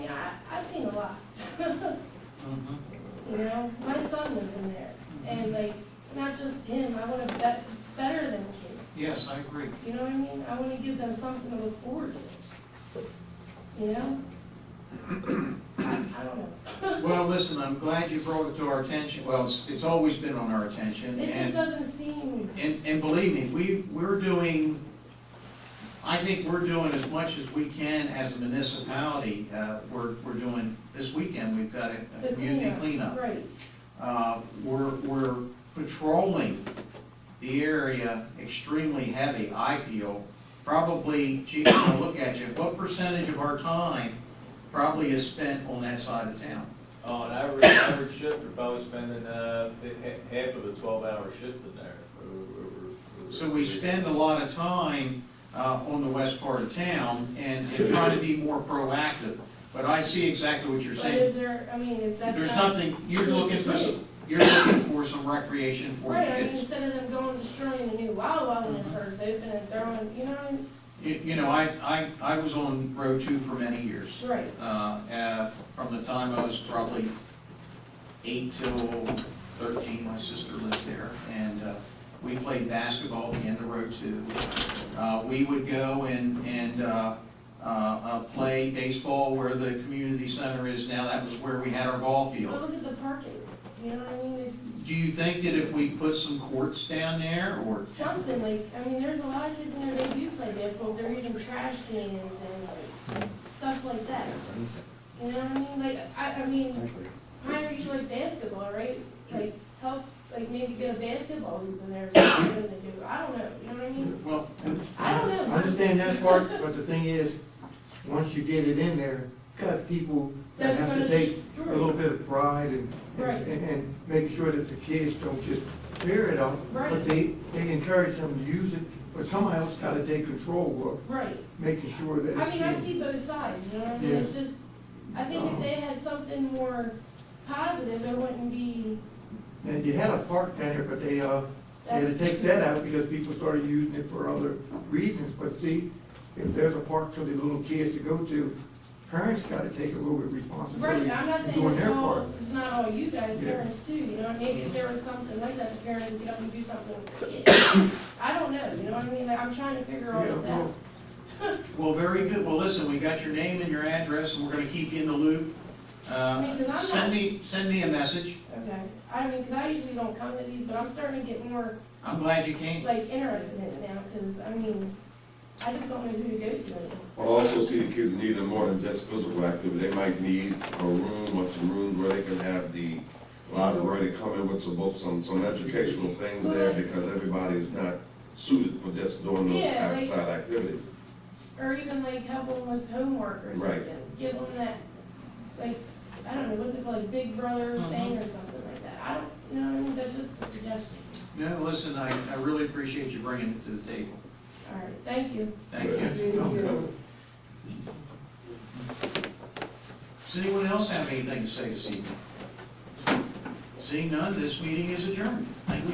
Mm-hmm. You know, my son was in there, and like, not just him, I wanna bet, better than kids, Yes, I agree. you know what I mean? I wanna give them something to look forward to, you know? I I don't know. Well, listen, I'm glad you brought it to our attention. Well, it's, it's always been on our attention. It just and- doesn't seem, And, and believe me, we, we're doing, I think we're doing as much as we can as a municipality. Uh, We're, we're doing, this weekend, we've got a- the a community cleanup, cleanup. right, Uh, We're, we're patrolling the area extremely heavy, I feel. Probably, Chief, I'll look at you, what percentage of our time probably is spent on that side of town? On average, average shift, we're probably spending, uh, ha- half of a twelve-hour shift in there. We're- we're- we're- So we spend a lot of time uh, on the west part of town and and try to be more proactive. But I see exactly what you're but is saying. there, I mean, is that? There's not- nothing, you're looking for, some- you're looking for some recreation for the Right, I mean, kids. instead Mm-hmm. of them going destroying a new Wawa when it first opened and throwing, you know, what I mean? You you know, I, I, I was on Road 2 for many years. right, Uh, uh, From the time I was probably eight till 13, my sister lived there. And uh, we played basketball at the end of Road 2. Uh, We would go and, and uh, uh, uh, play baseball where the community center is now. That was where we had our ball but field. look at the parking, you know what I mean? It's- Do you think that if we put some courts down there or? something, like, I mean, there's a lot of kids in there, they do play basketball, they're even trash cans and like, stuff like that. You know what I mean, like, I, I mean, Pine Ridge like basketball, right? Like, help, like, maybe get a basketball hoop in there, or something to do, I don't know, you know what I mean? Well, I don't know. I understand that part, but the thing is, once you get it in there, got people that That's have gonna to take a destroy. little bit of pride and, Right. and, and make sure that the kids don't just tear it up, Right. but they, they encourage them to use it, but someone else gotta take control Right, of making sure that I it's mean, I being. see both sides, you know what I mean? Yeah. It's just, I think if they had something more positive, it wouldn't be And you had a park down there, but they, uh, they had to that, take that out because people started using it for other reasons. But see, if there's a park for the little kids to go to, parents gotta take a little bit of responsibility Right, I'm not for saying doing it's their all, part. it's not all you guys, Yeah. parents too, you know, maybe if there was something like that, the parents would get up and do something with the kids. I don't know, you know what I mean, Like, I'm trying to figure all Yeah, of that. well, well, very good. Well, listen, we got your name and your address and we're going to keep you in the loop. mean, 'cause I'm Uh, not- Send me, send me a message. Okay, I mean, 'cause I usually don't come to these, but I'm starting to get more, I'm glad you came. like, interested in it now, 'cause, I mean, I just don't know who to go to anymore. I also see the kids needing more than just physical activity. They might need a room or some rooms where they can have the library to come in with some books, some, some educational things there because everybody is not suited for just doing those Yeah, like- outside activities. Or even like help them with homework or Right. something, give them that, like, I don't know, what's it called, like Big Brother Mhm. thing or something like that, I don't, you know, what I mean, that's just a suggestion. No, listen, I, I really appreciate you bringing it to the table. All right, thank you. Thank you. you. Does anyone else have anything to say this evening? Seeing none, this meeting is adjourned. Thank you.